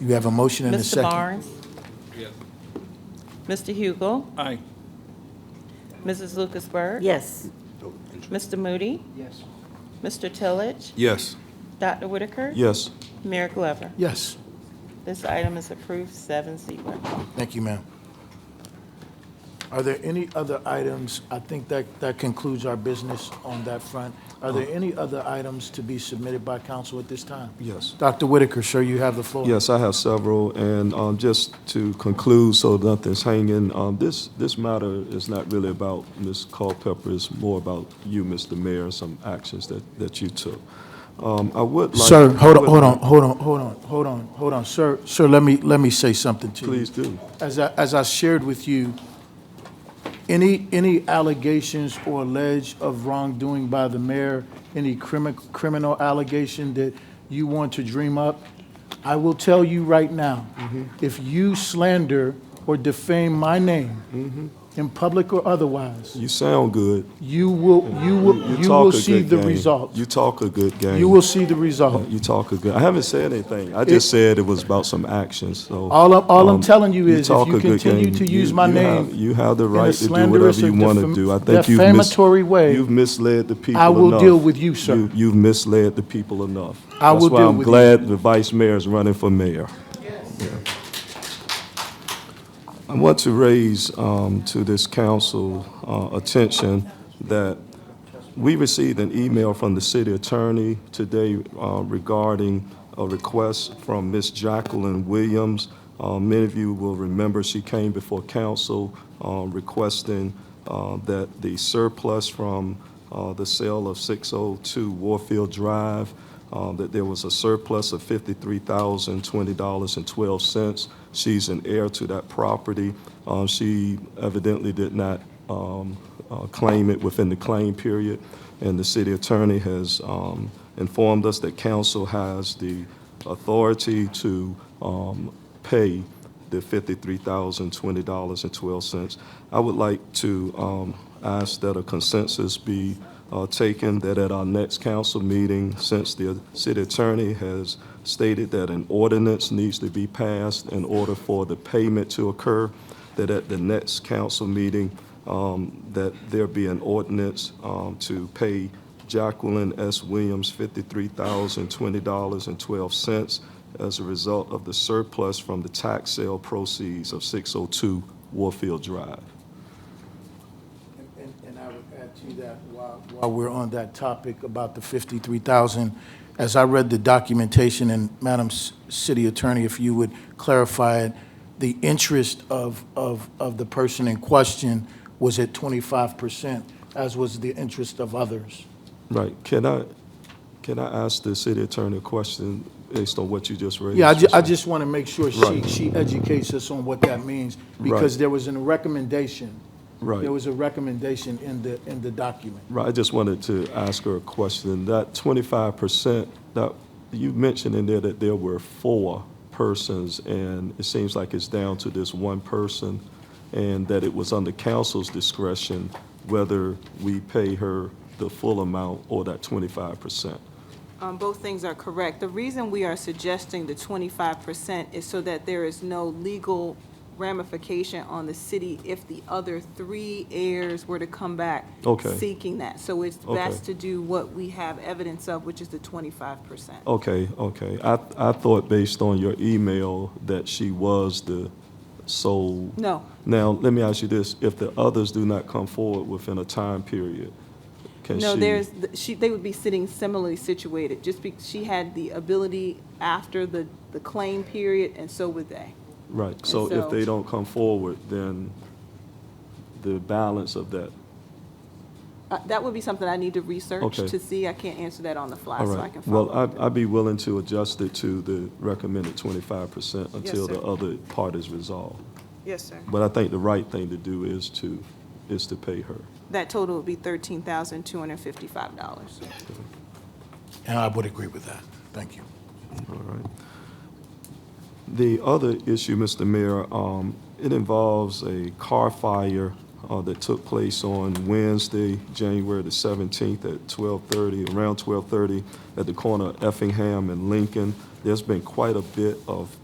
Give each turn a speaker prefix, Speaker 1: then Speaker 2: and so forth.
Speaker 1: You have a motion and a
Speaker 2: Mr.
Speaker 1: second.
Speaker 2: Barnes?
Speaker 3: Yes.
Speaker 2: Mr. Hugel?
Speaker 3: Aye.
Speaker 2: Mrs. Lucasberg?
Speaker 4: Yes.
Speaker 2: Mr. Moody?
Speaker 5: Yes.
Speaker 2: Mr. Tillage?
Speaker 3: Yes.
Speaker 2: Dr. Whitaker?
Speaker 3: Yes.
Speaker 2: Mayor Glover?
Speaker 1: Yes,
Speaker 2: This item is approved seven zero.
Speaker 1: thank you, ma'am. Are there any other items? I think that, that concludes our business on that front. Are there any other items to be submitted by council at this time?
Speaker 6: Yes.
Speaker 1: Dr. Whitaker, sir, you have the floor.
Speaker 6: Yes, I have several, and um, just to conclude, so nothing's hanging, um, this, this matter is not really about Ms. Culpepper, it's more about you, Mr. Mayor, and some actions that, that you took. Um, I would like.
Speaker 1: Sir, hold on,
Speaker 6: I would
Speaker 1: hold
Speaker 6: like-
Speaker 1: on, hold on, hold on, hold on, hold on. Sir, sir, let me, let me say something to you.
Speaker 6: Please do.
Speaker 1: As I, as I shared with you, any, any allegations or alleged of wrongdoing by the mayor, any crimi- criminal allegation that you want to dream up, I will tell you right now,
Speaker 6: Mm-hmm.
Speaker 1: if you slander or defame my name,
Speaker 6: Mm-hmm.
Speaker 1: in public or otherwise,
Speaker 6: You sound good.
Speaker 1: you will, you will, you
Speaker 6: talk
Speaker 1: will
Speaker 6: a
Speaker 1: see
Speaker 6: good
Speaker 1: the
Speaker 6: game.
Speaker 1: result.
Speaker 6: You talk a good game.
Speaker 1: You will see the result.
Speaker 6: You talk a good, I haven't said anything. I just
Speaker 1: It-
Speaker 6: said it was about some actions, so.
Speaker 1: All I'm- all I'm
Speaker 6: um,
Speaker 1: telling you is if
Speaker 6: talk
Speaker 1: you
Speaker 6: a good
Speaker 1: continue
Speaker 6: game.
Speaker 1: to
Speaker 6: You-
Speaker 1: use my
Speaker 6: you have-
Speaker 1: name
Speaker 6: You have the
Speaker 1: in a
Speaker 6: right to do
Speaker 1: slanderous
Speaker 6: whatever you
Speaker 1: or
Speaker 6: want to
Speaker 1: defam-
Speaker 6: do. I think you've. mis-
Speaker 1: defamatory way,
Speaker 6: You've misled the people
Speaker 1: I will
Speaker 6: enough.
Speaker 1: deal with you, sir.
Speaker 6: You- You've misled the people enough.
Speaker 1: I will deal with you.
Speaker 6: That's why I'm glad the vice mayor is running for mayor. I want to raise um, to this council uh, attention that we received an email from the city attorney today uh, regarding a request from Ms. Jacqueline Williams. Uh, Many of you will remember she came before council uh, requesting uh, that the surplus from uh, the sale of 602 Warfield Drive uh, that there was a surplus of $53,020.12. She's an heir to that property. Uh, She evidently did not um, uh, claim it within the claim period, and the city attorney has um, informed us that council has the authority to um, pay the $53,020.12. I would like to um, ask that a consensus be uh, taken that at our next council meeting, since the city attorney has stated that an ordinance needs to be passed in order for the payment to occur, that at the next council meeting, um, that there be an ordinance um, to pay Jacqueline S. Williams $53,020.12 as a result of the surplus from the tax sale proceeds of 602 Warfield Drive.
Speaker 1: And- And and I would add to that, while while we're on that topic about the 53,000, as I read the documentation, and Madam S- City Attorney, if you would clarify it, the interest of, of, of the person in question was at 25%, as was the interest of others.
Speaker 6: Right, can I, can I ask the city attorney a question based on what you just raised?
Speaker 1: Yeah, I ju- I just want to make sure she,
Speaker 6: Right.
Speaker 1: she educates us on what that means, because
Speaker 6: Right.
Speaker 1: there was a recommendation.
Speaker 6: Right.
Speaker 1: There was a recommendation in the, in the document.
Speaker 6: Right, I just wanted to ask her a question. That twenty-five percent, that, you mentioned in there that there were four persons, and it seems like it's down to this one person, and that it was under council's discretion whether we pay her the full amount or that twenty-five percent.
Speaker 7: Um, Both things are correct. The reason we are suggesting the twenty-five percent is so that there is no legal ramification on the city if the other three heirs were to come back
Speaker 6: Okay.
Speaker 7: seeking that. So it's
Speaker 6: Okay.
Speaker 7: best to do what we have evidence of, which is the twenty-five percent.
Speaker 6: Okay, okay. I, I thought based on your email that she was the sole.
Speaker 7: No.
Speaker 6: Now, let me ask you this, if the others do not come forward within a time period, can she?
Speaker 7: No, there's, she, they would be sitting similarly situated, just be, she had the ability after the, the claim period, and so would they.
Speaker 6: Right, so
Speaker 7: so-
Speaker 6: if they don't come forward, then the balance of that,
Speaker 7: Uh, That would be something I need to research
Speaker 6: Okay.
Speaker 7: to see. I can't answer that on the fly,
Speaker 6: all
Speaker 7: so I
Speaker 6: right.
Speaker 7: can follow
Speaker 6: Well,
Speaker 7: up.
Speaker 6: I'd, I'd be willing to adjust it to the recommended twenty-five percent until the
Speaker 7: sir.
Speaker 6: other part is resolved.
Speaker 7: Yes, sir.
Speaker 6: But I think the right thing to do is to, is to pay her.
Speaker 7: That total would be thirteen thousand two hundred and fifty-five dollars.
Speaker 1: And I would agree with that. Thank you.
Speaker 6: All right. The other issue, Mr. Mayor, um, it involves a car fire uh, that took place on Wednesday, January the 17th at 12:30, around 12:30, at the corner of Effingham and Lincoln. There's been quite a bit of